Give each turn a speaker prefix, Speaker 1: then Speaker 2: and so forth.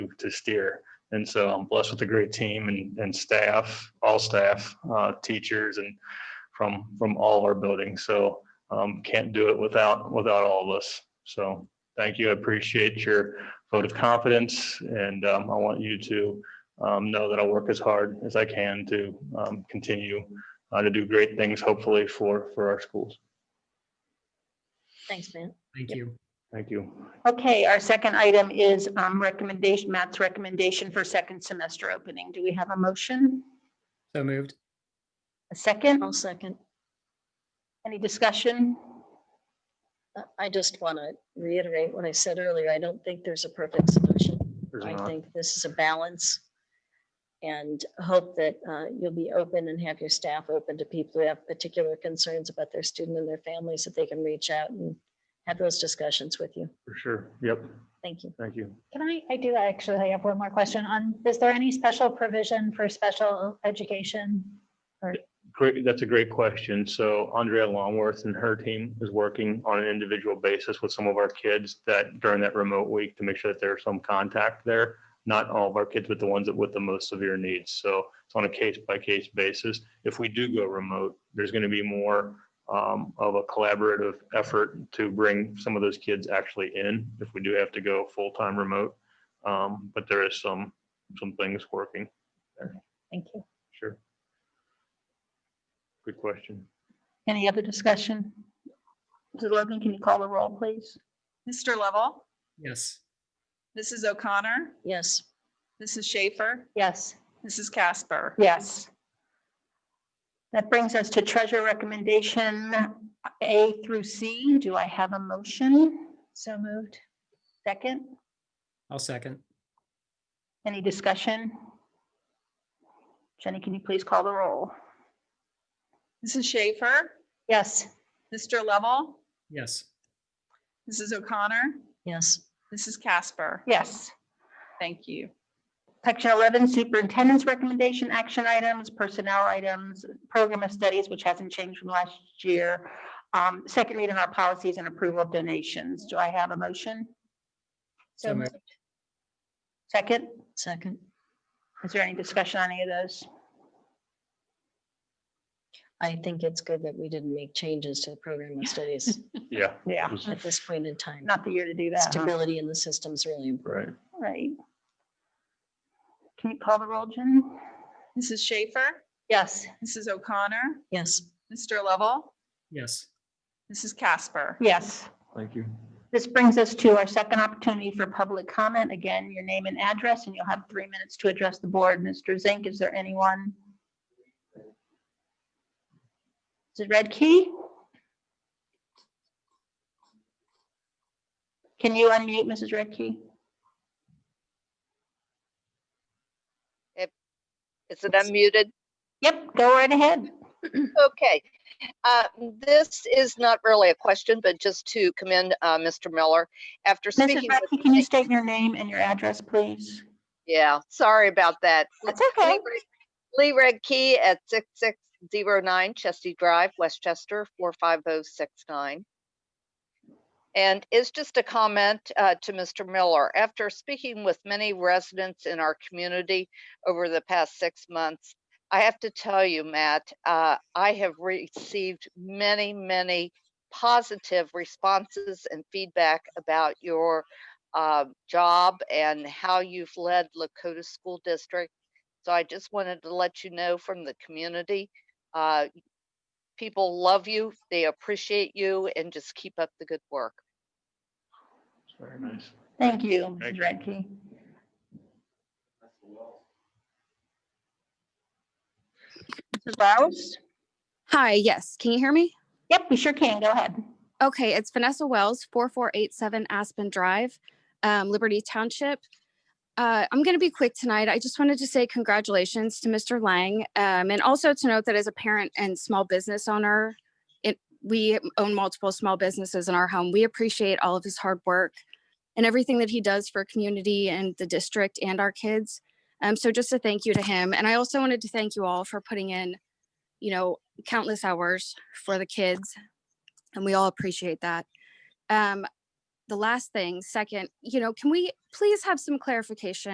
Speaker 1: to steer. And so I'm blessed with a great team and, and staff, all staff, uh, teachers and from, from all of our buildings. So, um, can't do it without, without all of us. So thank you. I appreciate your vote of confidence and, um, I want you to, um, know that I'll work as hard as I can to, um, continue, uh, to do great things hopefully for, for our schools.
Speaker 2: Thanks, Matt.
Speaker 3: Thank
Speaker 2: Yep.
Speaker 3: you.
Speaker 1: Thank you.
Speaker 4: Okay, our second item is um, recommendation, Matt's recommendation for second semester opening. Do we have a motion?
Speaker 3: So moved.
Speaker 4: A second?
Speaker 2: I'll second.
Speaker 4: Any discussion?
Speaker 2: Uh, I just want to reiterate what I said earlier. I don't think there's a perfect solution.
Speaker 1: There's
Speaker 2: I
Speaker 1: not.
Speaker 2: think this is a balance. And hope that uh, you'll be open and have your staff open to people who have particular concerns about their student and their families, that they can reach out and have those discussions with you.
Speaker 1: For sure. Yep.
Speaker 2: Thank you.
Speaker 1: Thank you.
Speaker 5: Can I, I do actually have one more question on, is there any special provision for special education?
Speaker 1: Great, that's a great question. So Andrea Longworth and her team is working on an individual basis with some of our kids that during that remote week to make sure that there's some contact there. Not all of our kids, but the ones that with the most severe needs. So it's on a case by case basis. If we do go remote, there's going to be more um, of a collaborative effort to bring some of those kids actually in if we do have to go full time remote. Um, But there is some, some things working.
Speaker 5: Thank you.
Speaker 1: Sure. Good question.
Speaker 4: Any other discussion? Mrs. Logan, can you call the roll, please?
Speaker 6: Mr. Lovell,
Speaker 3: Yes.
Speaker 6: Mrs. O'Connor,
Speaker 2: Yes,
Speaker 6: Mrs. Schaefer,
Speaker 5: Yes,
Speaker 6: Mrs. Casper.
Speaker 4: Yes. That brings us to treasure recommendation A through C. Do I have a motion?
Speaker 5: so moved.
Speaker 4: Second?
Speaker 3: I'll second.
Speaker 4: Any discussion? Jenny, can you please call the roll?
Speaker 6: Mrs. Schaefer,
Speaker 5: Yes,
Speaker 6: Mr. Lovell,
Speaker 3: Yes.
Speaker 6: Mrs. O'Connor,
Speaker 2: yes,
Speaker 6: Mrs. Casper.
Speaker 4: Yes.
Speaker 6: Thank you.
Speaker 4: Section 11, Superintendent's Recommendation, Action Items, Personnel Items, Program of Studies, which hasn't changed from last year. Um, Second read on our policies and approval of donations. Do I have a motion?
Speaker 3: So
Speaker 5: so
Speaker 3: moved.
Speaker 5: moved.
Speaker 4: Second,
Speaker 2: second.
Speaker 4: is there any discussion on any of those?
Speaker 2: I think it's good that we didn't make changes to the program of studies
Speaker 1: Yeah.
Speaker 4: Yeah,
Speaker 2: at this point in time.
Speaker 4: not the year to do that. huh?
Speaker 2: Stability in the system is really important.
Speaker 1: Right.
Speaker 4: Right. Can you call the roll, Jen?
Speaker 6: Mrs. Schaefer,
Speaker 5: Yes,
Speaker 6: Mrs. O'Connor,
Speaker 2: Yes,
Speaker 6: Mr. Lovell,
Speaker 3: Yes.
Speaker 6: Mrs. Casper.
Speaker 4: Yes.
Speaker 1: Thank you.
Speaker 4: This brings us to our second opportunity for public comment. Again, your name and address, and you'll have three minutes to address the board. Mr. Zink, is there anyone? Is it Red Key? Can you unmute Mrs. Red Key?
Speaker 7: Is it unmuted?
Speaker 4: Yep, go right ahead.
Speaker 7: Okay. Uh, This is not really a question, but just to commend uh, Mr. Miller. After
Speaker 4: Mrs.
Speaker 7: speaking,
Speaker 4: Red
Speaker 7: with-
Speaker 4: Key, can you state your name and your address, please?
Speaker 7: yeah, sorry about that.
Speaker 4: That's okay.
Speaker 7: Lee Red Key at 6609 Chesty Drive, Westchester, 45069. And it's just a comment uh, to Mr. Miller. After speaking with many residents in our community over the past six months, I have to tell you, Matt, uh, I have received many, many positive responses and feedback about your uh, job and how you've led Lakota School District so I just wanted to let you know from the community, uh, people love you, they appreciate you, and just keep up the good work.
Speaker 1: Very nice.
Speaker 4: Thank you,
Speaker 1: Thank
Speaker 4: Mrs.
Speaker 1: you.
Speaker 4: Red Key. Mrs. Bowers?
Speaker 8: Hi, yes. Can you hear me?
Speaker 4: Yep, we sure can. Go ahead.
Speaker 8: Okay, it's Vanessa Wells, 4487 Aspen Drive, um, Liberty Township. Uh, I'm going to be quick tonight. I just wanted to say congratulations to Mr. Lang um, and also to note that as a parent and small business owner, it, we own multiple small businesses in our home. We appreciate all of his hard work and everything that he does for community and the district and our kids. Um, so just a thank you to him. And I also wanted to thank you all for putting in, you know, countless hours for the kids and we all appreciate that. Um, the last thing, second, you know, can we please have some clarification?